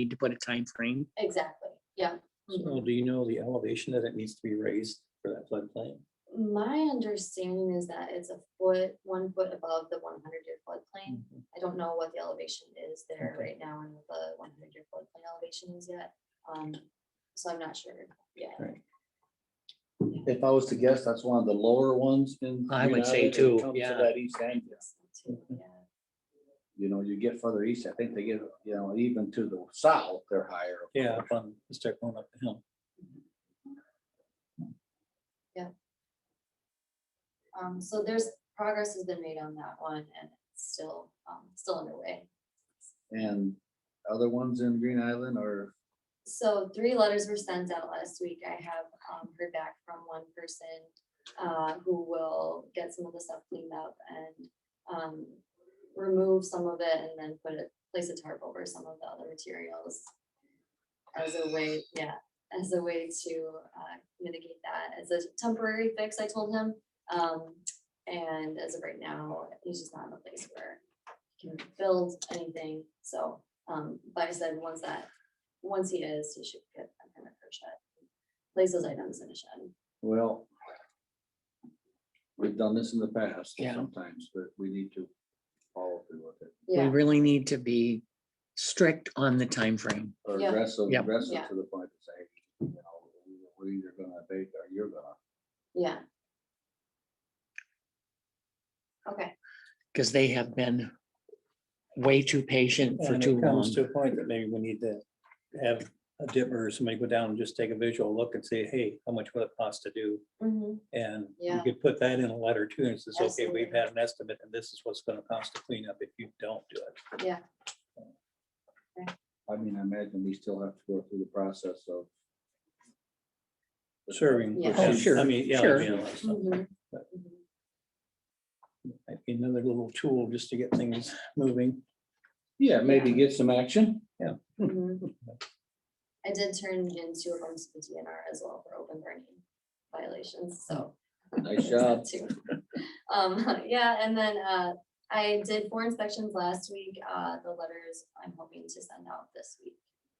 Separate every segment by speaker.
Speaker 1: need to put a time frame.
Speaker 2: Exactly, yeah.
Speaker 3: So Oh, do you know the elevation that it needs to be raised for that floodplain?
Speaker 2: My understanding is that it's a foot, one foot above the one hundred year floodplain. I don't know what the elevation is there
Speaker 3: Mm. Okay.
Speaker 2: right now and what the one hundred year floodplain elevation is yet. Um, so I'm not sure, yeah.
Speaker 3: Right.
Speaker 4: If I was to guess, that's one of the lower ones in.
Speaker 1: I would say
Speaker 4: United when
Speaker 1: too,
Speaker 4: it comes to
Speaker 1: yeah.
Speaker 4: That east end,
Speaker 2: Yes, that's too,
Speaker 3: Mm-hmm.
Speaker 2: yeah.
Speaker 4: you know, you get further east, I think they get, you know, even to the south, they're higher.
Speaker 3: Yeah, up on, start going up the hill.
Speaker 2: Um, so there's, progress has been made on that one and it's still, um, still underway.
Speaker 4: And other ones in Green Island are,
Speaker 2: So three letters were sent out last week. I have um, heard back from one person uh, who will get some of the stuff cleaned up and um, remove some of it and then put it, place a tarp over some of the other materials as a way, yeah, as a way to uh, mitigate that. As a temporary fix, I told him. Um, And as of right now, he's just not in a place where he can build anything. So, um, but I said, once that once he is, he should get a permit for a shed. Place those items in a shed.
Speaker 4: well. We've done this in the past
Speaker 1: Yeah.
Speaker 4: sometimes, but we need to follow through with it.
Speaker 1: We
Speaker 2: Yeah,
Speaker 1: really need to be strict on the time frame.
Speaker 4: Or
Speaker 2: Yeah.
Speaker 4: aggressive,
Speaker 1: Yeah.
Speaker 4: aggressive
Speaker 2: Yeah.
Speaker 4: to the point to say, you know, we're either gonna abate or you're gonna.
Speaker 2: yeah. Okay,
Speaker 1: because they have been way too patient for
Speaker 3: And
Speaker 1: too long.
Speaker 3: it comes to a point that maybe we need to have a dipper or somebody go down and just take a visual look and say, hey, how much would it cost to do?
Speaker 2: mhm,
Speaker 3: And you
Speaker 2: Yeah.
Speaker 3: could put that in a letter too, and says, okay,
Speaker 2: Absolutely.
Speaker 3: we've had an estimate, and this is what's gonna cost to clean up if you don't do it.
Speaker 2: yeah,
Speaker 4: I mean, I imagine we still have to go through the process of.
Speaker 3: Serving.
Speaker 2: Yeah.
Speaker 1: Oh,
Speaker 3: which is-
Speaker 1: sure,
Speaker 3: I mean, yeah.
Speaker 1: sure.
Speaker 3: you know, so
Speaker 2: mhm,
Speaker 3: but-
Speaker 2: mhm.
Speaker 3: might be Another little tool just to get things moving.
Speaker 4: Yeah, maybe get some action.
Speaker 2: Mhm. I did turn in two of them to the DNR as well for open burning violations, so. there's
Speaker 4: Nice job.
Speaker 2: that too. Um, yeah, and then, uh, I did four inspections last week, uh, the letters I'm hoping to send out this week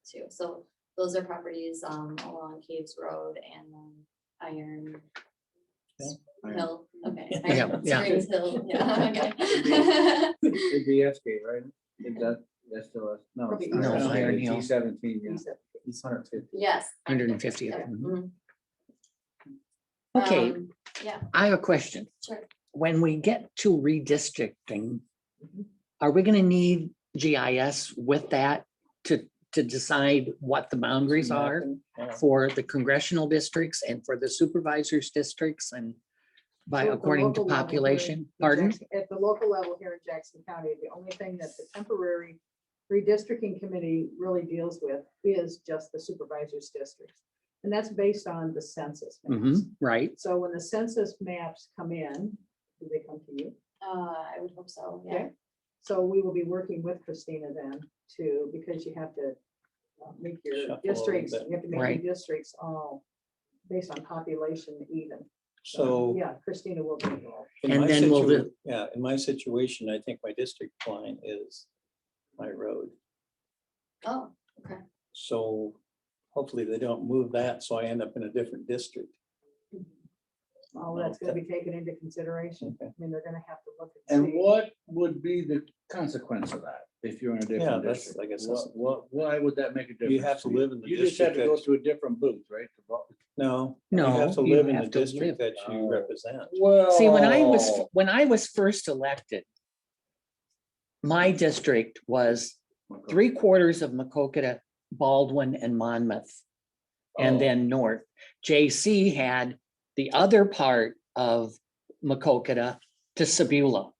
Speaker 2: too, so those are properties, um, along Caves Road and um, Iron
Speaker 4: Iron.
Speaker 2: Hill, okay.
Speaker 1: Yeah,
Speaker 2: Iron
Speaker 1: yeah.
Speaker 2: Springs Hill, yeah, okay.
Speaker 4: It'd It'd be S K, right? Is that, that's still, us? no. it's
Speaker 2: No,
Speaker 4: not. It's
Speaker 1: Iron
Speaker 4: T
Speaker 1: Hill.
Speaker 4: Seventeen, yeah. It's hundred fifty.
Speaker 2: Yes.
Speaker 1: Hundred and fiftieth.
Speaker 2: Yeah, mhm.
Speaker 1: Okay,
Speaker 2: Um,
Speaker 1: I have a question.
Speaker 2: Sure,
Speaker 1: When we get to redistricting, are we gonna need GIS with that to, to decide what the boundaries are
Speaker 3: Yeah.
Speaker 1: for the congressional districts and for the supervisors districts and by
Speaker 5: So at the
Speaker 1: according to
Speaker 5: local level, we're-
Speaker 1: population?
Speaker 5: in
Speaker 1: Pardon?
Speaker 5: Jackson- At the local level here in Jackson County, the only thing that the temporary redistricting committee really deals with is just the supervisor's districts. And that's based on the census
Speaker 1: hmm
Speaker 5: maps.
Speaker 1: right.
Speaker 5: So when the census maps come in, do they come to you?
Speaker 2: uh, I would hope so, yeah.
Speaker 5: So we will be working with Christina then too, because you have to uh, make
Speaker 3: Shuffle a
Speaker 5: your
Speaker 3: little
Speaker 5: districts,
Speaker 3: bit.
Speaker 5: you have to make
Speaker 1: Right.
Speaker 5: your districts all based on population even.
Speaker 3: So.
Speaker 5: Yeah, Christina will be involved.
Speaker 3: In
Speaker 1: And
Speaker 3: my
Speaker 1: then we'll
Speaker 3: situa-
Speaker 1: do-
Speaker 3: Yeah, in my situation, I think my district line is my road,
Speaker 2: Oh,
Speaker 3: so hopefully they don't move that, so I end up in a different district.
Speaker 5: All that's gonna be taken into consideration. I
Speaker 1: Mm-hmm.
Speaker 3: Okay.
Speaker 5: mean, they're gonna have to look.
Speaker 4: And
Speaker 5: see.
Speaker 4: what would be the consequence of that if you're in a
Speaker 3: Yeah,
Speaker 4: different
Speaker 3: that's-
Speaker 4: district?
Speaker 3: I guess that's-
Speaker 4: What, what, why would that make a difference?
Speaker 3: have to live in the
Speaker 4: You just have to
Speaker 3: district
Speaker 4: go
Speaker 3: that-
Speaker 4: to a different booth, right? to vote?
Speaker 3: No. You
Speaker 1: No,
Speaker 3: have to
Speaker 1: you
Speaker 3: live in the
Speaker 1: have to live- uh,
Speaker 3: district that
Speaker 4: Oh.
Speaker 3: you represent.
Speaker 1: See, when I was,
Speaker 4: Well,
Speaker 1: when I was first elected, my district was
Speaker 4: Oh,
Speaker 1: three quarters of Macokota, Baldwin and Monmouth.
Speaker 4: oh,
Speaker 1: And then north, JC had the other part of Macokota to Sebula.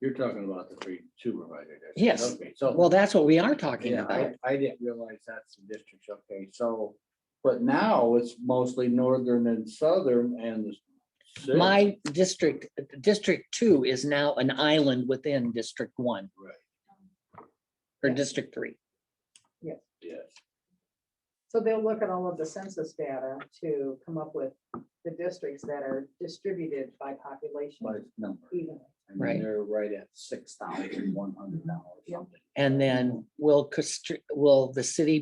Speaker 4: You're talking about the three supervisor districts.
Speaker 1: Yes.
Speaker 4: Okay, So.
Speaker 1: Well, that's what we are talking
Speaker 4: Yeah,
Speaker 1: about.
Speaker 4: I, I didn't realize that's the districts, okay, so, but now it's mostly northern and southern and. the city.
Speaker 1: My district, District Two is now an island within District One
Speaker 4: Right,
Speaker 1: or
Speaker 5: Yeah.
Speaker 1: District Three.
Speaker 4: yes,
Speaker 5: So they'll look at all of the census data to come up with the districts that are distributed by population
Speaker 4: by number,
Speaker 5: evenly.
Speaker 4: I mean,
Speaker 1: Right.
Speaker 4: They're right at six thousand one hundred dollars. Mm-hmm.
Speaker 1: And then will, constr- will the city